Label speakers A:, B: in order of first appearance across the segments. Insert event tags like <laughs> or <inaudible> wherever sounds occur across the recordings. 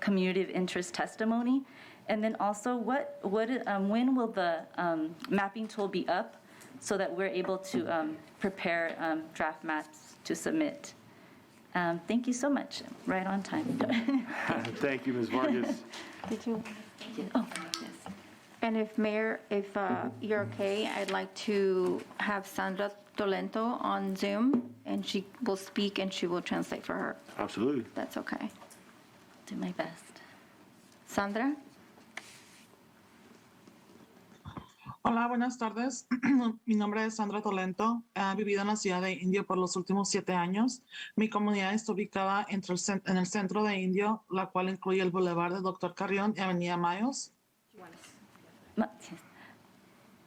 A: community of interest testimony? And then also, what, what, um, when will the um, mapping tool be up so that we're able to um, prepare um, draft maps to submit? Um, Thank you so much, right on time. <laughs>
B: Thank you, Ms. Vargas.
C: Did you?
A: Oh,
C: And if Mayor, if uh, you're okay, I'd like to have Sandra Tolento on Zoom, and she will speak and she will translate for her.
B: Absolutely.
C: That's okay.
A: Do my best.
C: Sandra?
D: Hola, buenas tardes. <clears throat> Mi nombre es Sandra Tolento. He vivido en la ciudad de Indio por los últimos siete años. Mi comunidad está ubicada entre el cen- en el centro de Indio, la cual incluye el Boulevard de Doctor Carrión y Avenida Mayos.
A: Ma- yes.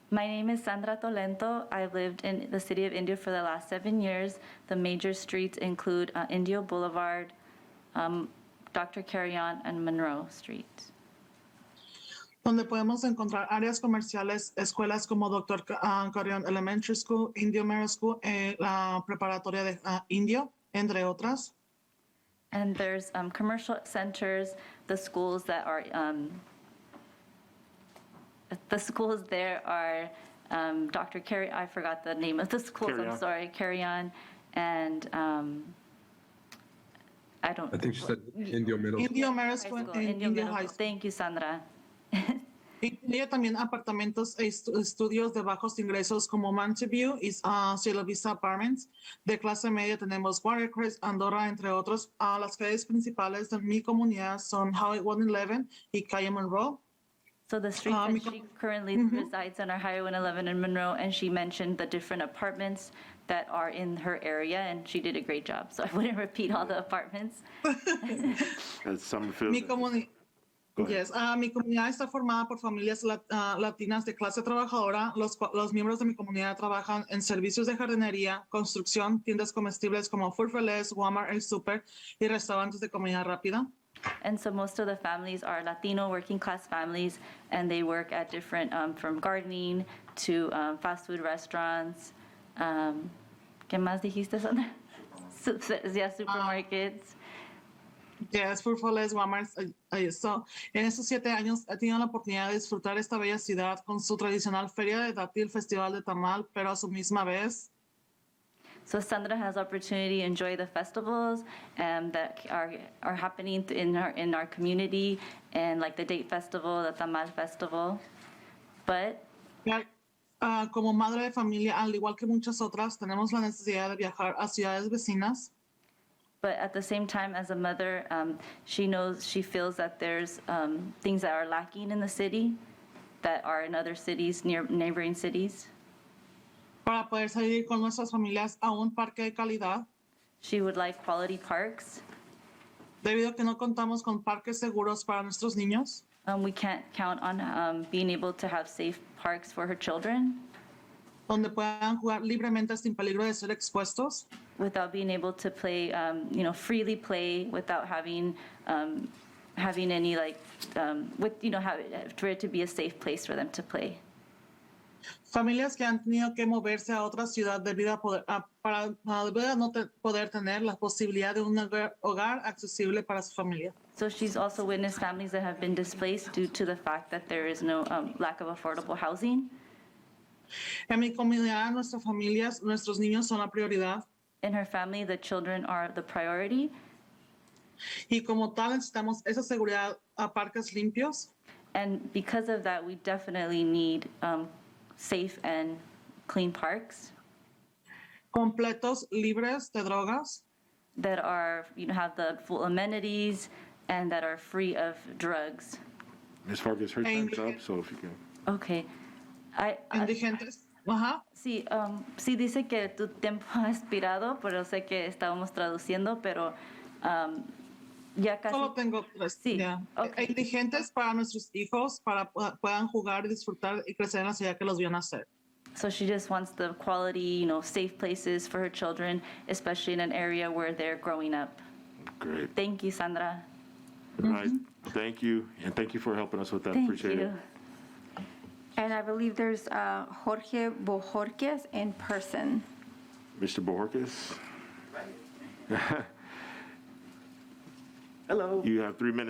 A: My name is Sandra Tolento. I lived in the city of Indio for the last seven years. The major streets include uh, Indio Boulevard, um, Dr. Carrion, and Monroe Street.
D: donde podemos encontrar áreas comerciales, escuelas como Dr. Ca- ah, Carrión Elementary School, Indio Middle School, eh, la preparatoria de ah, Indio, entre otras.
A: And there's um, commercial centers, the schools that are, um, the schools there are um, Dr. Carry, I forgot the name of the schools,
B: Carry
A: I'm
B: On.
A: sorry, Carry On, and um, I don't.
E: I think she said Indio Middle.
D: Indio Middle
A: High
D: School,
A: school,
D: eh,
A: Indio
D: Indio
A: Middle
D: High
A: School. Thank you, Sandra.
D: Incluye también apartamentos e estu- estudios de bajos ingresos como Mountain View y ah, Cielo Vista Apartments. De clase media tenemos Watercrest, Andorra, entre otros. Ah, las calles principales de mi comunidad son Highway 111 y Calle Monroe.
A: So the streets
D: Um,
A: that
D: com-
A: she currently resides on are Highway 111 in Monroe, and she mentioned the different apartments that are in her area, and she did a great job, so I wouldn't repeat all the apartments.
B: That's Summerfield.
D: Mi, comuni-
B: Go ahead.
D: Yes, ah, mi comunidad está formada por familias lat- ah, latinas de clase trabajadora. Los, cua- los miembros de mi comunidad trabajan en servicios de jardinería, construcción, tiendas comestibles como Food for Less, Walmart, El Super y restaurantes de comida rápida.
A: And so most of the families are Latino working-class families, and they work at different, um, from gardening to um, fast food restaurants. um, ¿Qué más dijiste, Sandra? <laughs> Su- Yeah, supermarkets.
D: Yes, Food for Less, Walmart. eh, eh, so, en estos siete años he tenido la oportunidad de disfrutar esta bella ciudad con su tradicional feria de dátil, festival de tamal, pero a su misma vez
A: So Sandra has opportunity to enjoy the festivals um, that are, are happening in our, in our community, and like the Date Festival, the Tamal Festival. But
D: Ya, ah, como madre de familia, al igual que muchas otras, tenemos la necesidad de viajar a ciudades vecinas
A: But at the same time, as a mother, um, she knows, she feels that there's um, things that are lacking in the city that are in other cities, near neighboring cities.
D: para poder salir con nuestras familias a un parque de calidad,
A: She would like quality parks.
D: debido a que no contamos con parques seguros para nuestros niños.
A: Um, we can't count on um, being able to have safe parks for her children
D: donde puedan jugar libremente sin peligro de ser expuestos.
A: without being able to play, um, you know, freely play without having, um, having any like, um, with, you know, have, for it to be a safe place for them to play.
D: Familias que han tenido que moverse a otra ciudad debido a poder, a- para, para debido a no te- poder tener la posibilidad de un hogar, hogar accesible para su familia.
A: So she's also witnessed families that have been displaced due to the fact that there is no um, lack of affordable housing.
D: En mi comunidad, nuestras familias, nuestros niños son la prioridad
A: In her family, the children are the priority,
D: y como tal necesitamos esa seguridad a parques limpios,
A: and because of that, we definitely need um, safe and clean parks
D: completos, libres de drogas,
A: that are, you know, have the full amenities and that are free of drugs.
B: Ms. Vargas, her
D: Thank
B: time's
D: you.
B: up, so if you can.
A: Okay, I, I
D: indigentes. Ajá.
A: sí, um, sí dice que tu tiempo ha expirado, pero sé que estábamos traduciendo, pero um, ya casi.
D: Solo tengo tres.
A: Sí,
D: ya.
A: ok.
D: E- Indigentes para nuestros hijos, para pu- puedan jugar, disfrutar y crecer en la ciudad que los vio nacer.
A: So she just wants the quality, you know, safe places for her children, especially in an area where they're growing up.
B: Great.
A: Thank you, Sandra.
B: All right. Thank you. And thank you for helping us with that.
A: Mm-hmm. Thank
B: Appreciate
A: you.
B: it.
C: And I believe there's uh, Jorge Bojorquez in person.
B: Mr. Bohorquez, <laughs>
F: Hello.
B: you have three minutes